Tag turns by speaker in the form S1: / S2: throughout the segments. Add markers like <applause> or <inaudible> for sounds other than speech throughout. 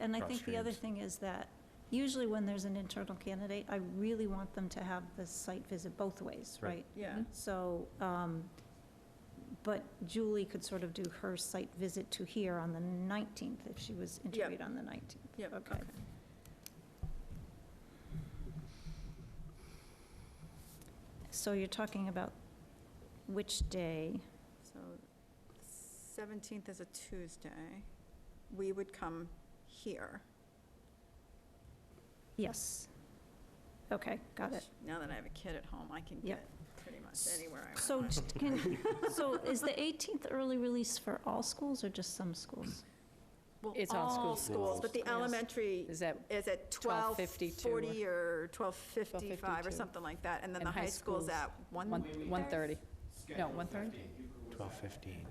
S1: and I think the other thing is that usually when there's an internal candidate, I really want them to have the site visit both ways,
S2: Right.
S1: right?
S3: Yeah.
S4: Mm-hmm.
S1: So, um, but Julie could sort of do her site visit to here on the 19th if she was interviewed on the 19th.
S3: Yep,
S1: Okay.
S3: okay.
S1: So you're talking about which day?
S3: So seventeenth is a Tuesday. We would come here.
S1: Yes. Okay, got it.
S3: Now that I have a kid at home, I can
S1: Yep.
S3: get pretty much anywhere I
S1: So
S3: want.
S1: t- can, so is the 18th early release for all schools or just some schools?
S3: Well,
S4: It's all schools.
S3: schools, but the
S4: Yes.
S3: elementary
S4: Is that,
S3: is at
S4: 12:52 or-
S3: 12:40 or 12:55 or
S4: 12:52.
S3: something like that. And then
S4: And
S3: the
S4: high
S3: high school's
S4: schools,
S3: at
S4: one
S3: 1.
S4: one thirty? No, one thirty?
S2: 12:15.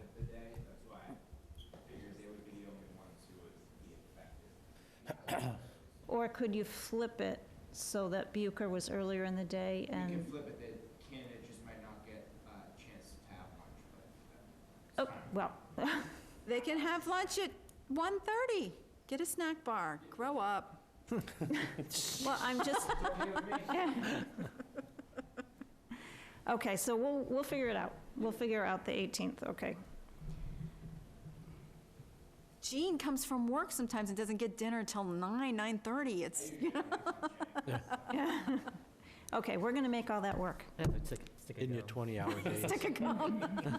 S1: Or could you flip it so that Bucher was earlier in the day
S5: You can
S1: and,
S5: flip it, the candidate just might not get a chance to have lunch, but
S1: oh, well,
S5: uh,
S3: They can have lunch at 1:30. Get a snack bar. Grow up.
S1: Oh, well, <laughs> I'm just. <laughs> Okay, so we'll, we'll figure it out. We'll figure out the 18th, okay. <laughs>
S3: Jean comes from work sometimes and doesn't get dinner till 9, 9:30. It's,
S1: Okay, we're going to make all that work.
S2: In your 20-hour days.
S3: <laughs> stick a gum.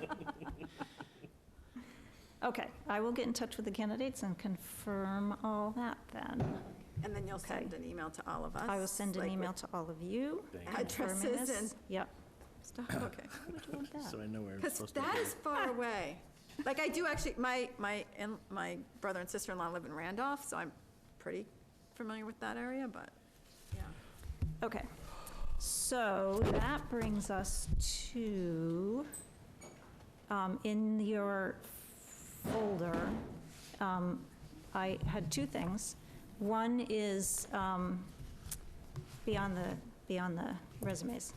S1: Okay, I will get in touch with the candidates and confirm all that then.
S3: And then you'll send an email to all of us.
S1: I will send an
S3: like,
S1: email to all of you.
S2: Thank
S3: you.
S1: confirming
S3: Addresses
S1: this.
S3: and-
S1: Yep.
S3: with
S1: <coughs>
S3: Stuff, okay.
S1: Why would you want that?
S6: So I know where I'm
S3: Because
S6: supposed to be.
S3: that is far away. Like, I do actually, my, my, and my brother and sister-in-law live in Randolph, so I'm pretty familiar with that area, but, yeah.
S1: Okay, so that brings us to, um, in your folder, um, I had two things. One is um, beyond the, beyond the resumes.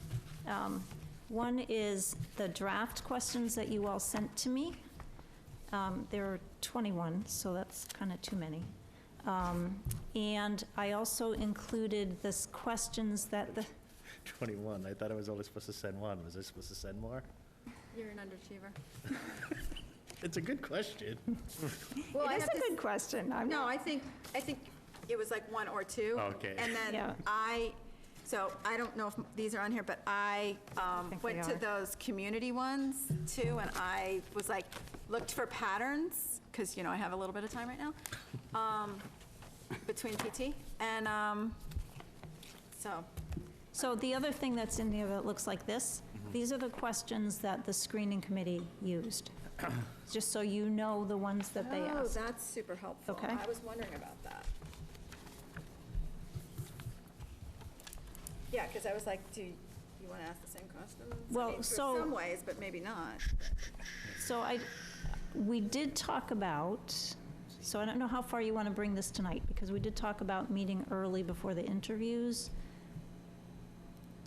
S1: Um, One is the draft questions that you all sent to me. Um, There are 21, so that's kind of too many. Um, And I also included this questions that the,
S6: 21, I thought I was only supposed to send one, was I supposed to send more?
S3: You're an underachiever.
S6: It's a good question.
S3: Well, I
S1: it is
S3: have
S1: a
S3: to-
S1: good question. I'm
S3: No, I think, I think it was like one or two.
S6: Okay.
S3: And
S1: Yeah.
S3: then I, so I don't know if these are on here, but I um,
S1: think
S3: went
S1: they
S3: to
S1: are.
S3: those community ones too, and I was like, looked for patterns, because, you know, I have a little bit of time right now, um, between PT, and, um, so,
S1: So the other thing that's in here that looks like this, these are the questions that the screening committee used, just so you know the ones that they
S3: Oh,
S1: asked.
S3: that's super helpful.
S1: Okay.
S3: I was wondering about that. Yeah, because I was like, do you want to ask the same questions? I
S1: Well,
S3: mean, for
S1: so-
S3: Some ways, but maybe not.
S1: So I, we did talk about, so I don't know how far you want to bring this tonight, because we did talk about meeting early before the interviews,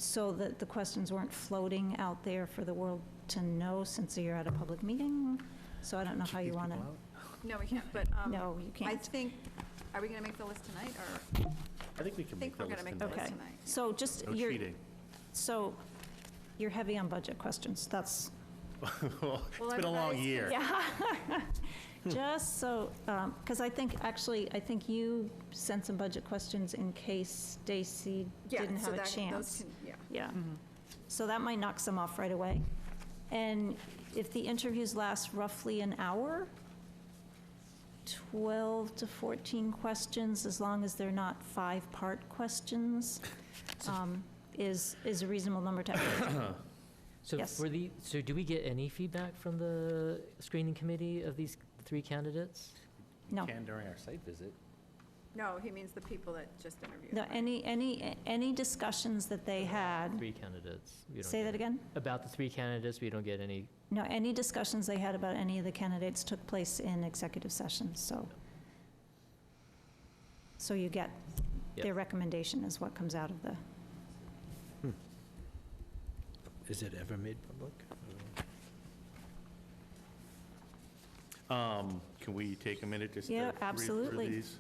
S1: so that the questions weren't floating out there for the world to know, since you're at a public meeting. So I don't know how you want to,
S3: No, we can't, but, um,
S1: no, you
S3: I
S1: can't.
S3: think, are we going to make the list tonight, or,
S6: I think we
S3: I
S6: can make
S3: think we're
S6: that
S3: going to
S6: list
S3: make the
S6: tonight.
S3: list
S1: Okay,
S3: tonight.
S1: so just,
S6: No
S1: you're,
S6: <laughs> cheating.
S1: So you're heavy on budget questions. That's,
S6: Well, It's been a long
S3: everybody's-
S6: year.
S1: yeah. <laughs> Just so, because I think, actually, I think you sent some budget questions in case Stacy
S3: Yeah,
S1: didn't
S3: so
S1: have a
S3: that- those
S1: chance.
S3: can- Mm-hmm. Yeah.
S1: Yeah. So that might knock some off right away. And if the interviews last roughly an hour, 12 to 14 questions, as long as they're not five-part
S3: <laughs>
S1: questions, um, is, is a reasonable number to have.
S3: <coughs>
S7: So
S1: Yes.
S7: for the, so do we get any feedback from the screening committee of these three candidates?
S1: No.
S6: Can during our site visit.
S3: No, he means the people that just interviewed.
S1: No, any, any, any discussions that they had,
S7: Three candidates. we don't
S1: say
S7: get
S1: that
S7: any-
S1: again?
S7: About the three candidates, we don't get any,
S1: No, any discussions they had about any of the candidates took place in executive session, so. So you get, their
S7: Yep.
S1: recommendation is what comes out of the,
S2: Is it ever made public?
S6: Um, Can we take a minute just to
S1: Yeah,
S6: Um, read through
S1: absolutely.
S6: these